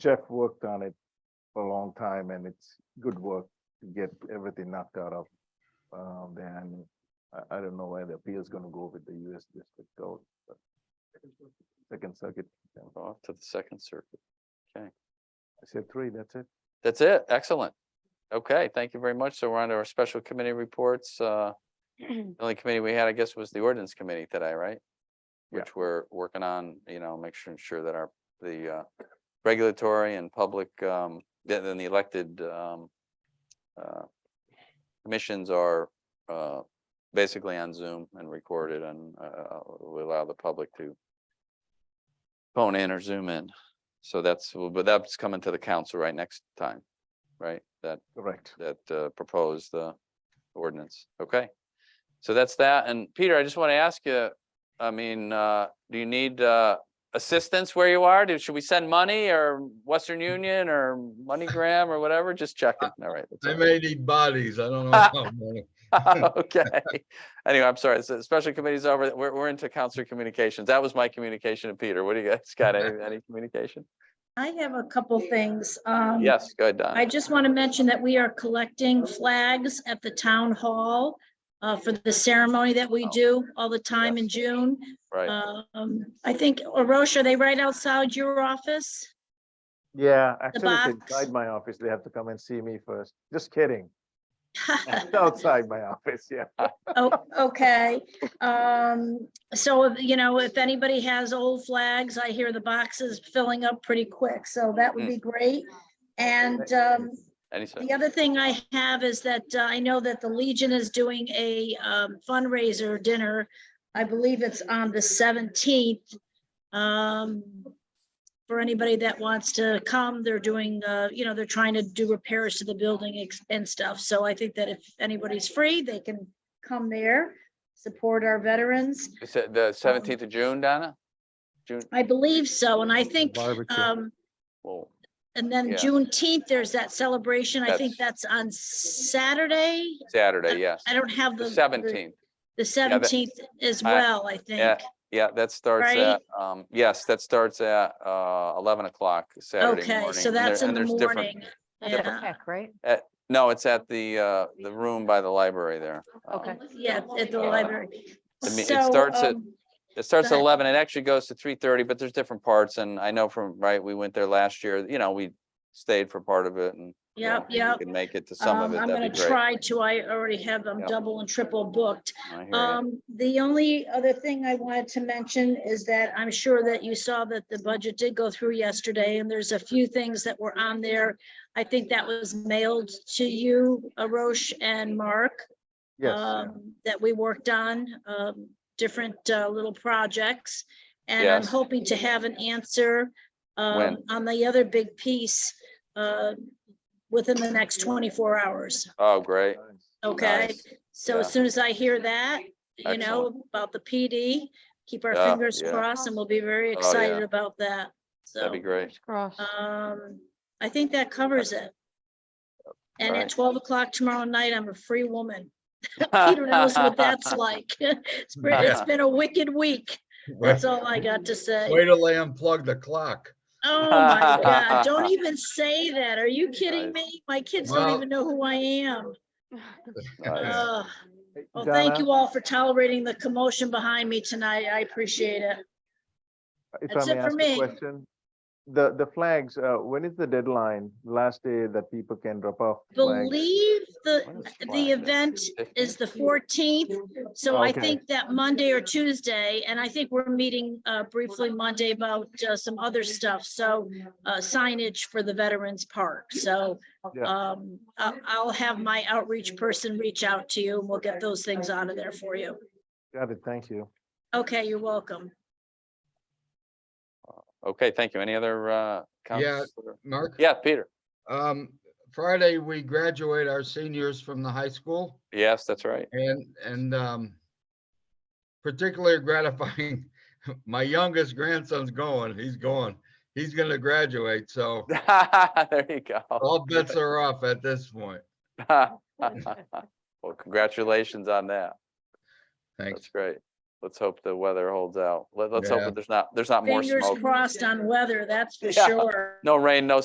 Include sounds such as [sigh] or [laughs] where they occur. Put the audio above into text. Jeff worked on it for a long time and it's good work to get everything knocked out of. Um, then I, I don't know where the appeal is gonna go with the US District Court, but Second Circuit, yeah. Off to the Second Circuit. I said three, that's it. That's it. Excellent. Okay, thank you very much. So we're on to our special committee reports. Uh, The only committee we had, I guess, was the ordinance committee today, right? Yeah. Which we're working on, you know, make sure, ensure that our, the uh, regulatory and public, um, then then the elected um, uh, commissions are uh, basically on Zoom and recorded and uh, we allow the public to phone in or Zoom in. So that's, but that's coming to the council right next time, right? That, Correct. that uh, proposed the ordinance. Okay. So that's that. And Peter, I just want to ask you, I mean, uh, do you need uh, assistance where you are? Do- Should we send money or Western Union or MoneyGram or whatever? Just checking. All right. that's I all. may need bodies. I [laughs] don't know. how many. [laughs] Okay. Anyway, I'm sorry. So the special committee's over. We're, we're into council communications. That was my communication to Peter. What do you guys got? Any, any communication? I have a couple things. Um, Yes, go ahead, Don. I just want to mention that we are collecting flags at the town hall uh, for the ceremony that we do all the time in June. Right. Um, I think, Orosh, are they right outside your office? [laughs] Yeah, actually, it's box. inside my office. They have to come and see me first. Just kidding. [laughs] It's outside my office, yeah. Oh, okay. Um, so, you know, if anybody has old flags, I hear the boxes filling up pretty quick, so that would be great. And, um, Any, sec- The other thing I have is that uh, I know that the Legion is doing a um, fundraiser dinner. I believe it's on the seventeenth. Um, For anybody that wants to come, they're doing, uh, you know, they're trying to do repairs to the building ex- and stuff. So I think that if anybody's free, they can come there, support our veterans. you said Um, the seventeenth of June, Donna? June, I believe so, and I think, Barbecue. um, well, and then Yeah. Juneteenth, there's that celebration. I think that's on Saturday. Saturday, yes. I don't have the. The the- seventeenth, The that- seventeenth as I- well, I yeah, think. yeah, that starts Right? at, um, yes, that starts at, uh, eleven o'clock Saturday morning. Okay, so and there- that's in and the there's different- morning. different- Yeah, right? No, it's at the, uh, the room by the library there. Um, Okay. yeah, at the Uh, library. I mean, it So, starts at- um, It starts at ahead. eleven, it actually goes to three thirty, but there's different parts, and I know from, right, we went there last year, you know, we stayed for part of it and. you know, Yep, if we yep. Could make it to some of Um, it, I'm that'd gonna be great. try to, I already have, I'm Yeah. double and triple booked. I hear ya. Um, the only other thing I wanted to mention is that I'm sure that you saw that the budget did go through yesterday and there's a few things that were on there. I think that was mailed to you, Arosh and Mark. Yes, yeah. um, that we worked on, um, different, uh, little projects. And I'm Yes. hoping to have an answer, um, When? on the other big piece, uh, within the next twenty-four hours, Oh, great. okay? Nice. So yeah. as soon as I hear that, you know, Excellent. about the PD, keep our Yeah, fingers yeah. crossed and we'll be very Oh, excited yeah. about that, so. That'd be great. Cross. Um, I think that covers it. And Alright. at twelve o'clock tomorrow night, I'm a free woman. Peter knows [laughs] what [laughs] that's like. It's been, it's been a wicked week. That's all I got to say. Way to lay unplug the clock. Oh my [laughs] God, don't even say that. Are you kidding me? My kids don't Well- even know who I am. Uh, Nice. Ugh. Hey, Well, thank Donna, you all for tolerating the commotion behind me tonight. I appreciate it. If That's I may it for ask me. a question, the, the flags, uh, when is the deadline, last day that people can drop off? flags? Believe When the, is Flag the Day? event is the fourteenth. So I Okay. think that Monday or Tuesday, and I think we're meeting uh, briefly Monday about uh, some other stuff. So uh, signage for the Veterans Park. So Yeah. um, I- I'll have my outreach person reach out to you and we'll get those things out of there for you. Got it, thank you. Okay, you're welcome. Okay, thank you. Any other, uh? Yeah. counselor- Mark, Yeah, Peter. um, Friday, we graduate our seniors from the high school Yes, that's right. [laughs] and, and, um, particularly gratifying, [laughs] my youngest grandson's going, he's going, he's gonna graduate, so There you go. all bets are off at this point. Oh. [laughs] Well, congratulations on that. Thanks. That's great. let's hope the weather holds out. Let, let's hope Yeah. that there's not, there's not more Fingers smoke. crossed on weather, that's for Yeah. sure. No rain, no